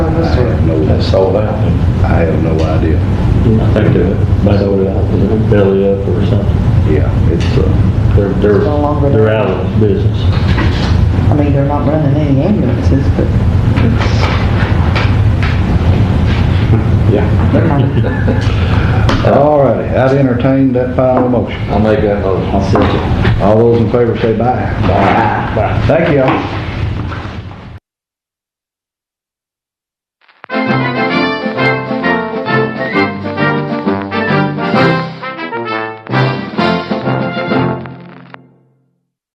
that's sold out. I have no idea. I think they might order out, is it belly up or something? Yeah, it's, uh, They're, they're, It's no longer they're out of business. I mean, they're not running any ambulances, but Yeah. they're kind of all righty, I'd entertain that final motion. I'll make that motion. All those in favor say bye. Bye. Thank you all.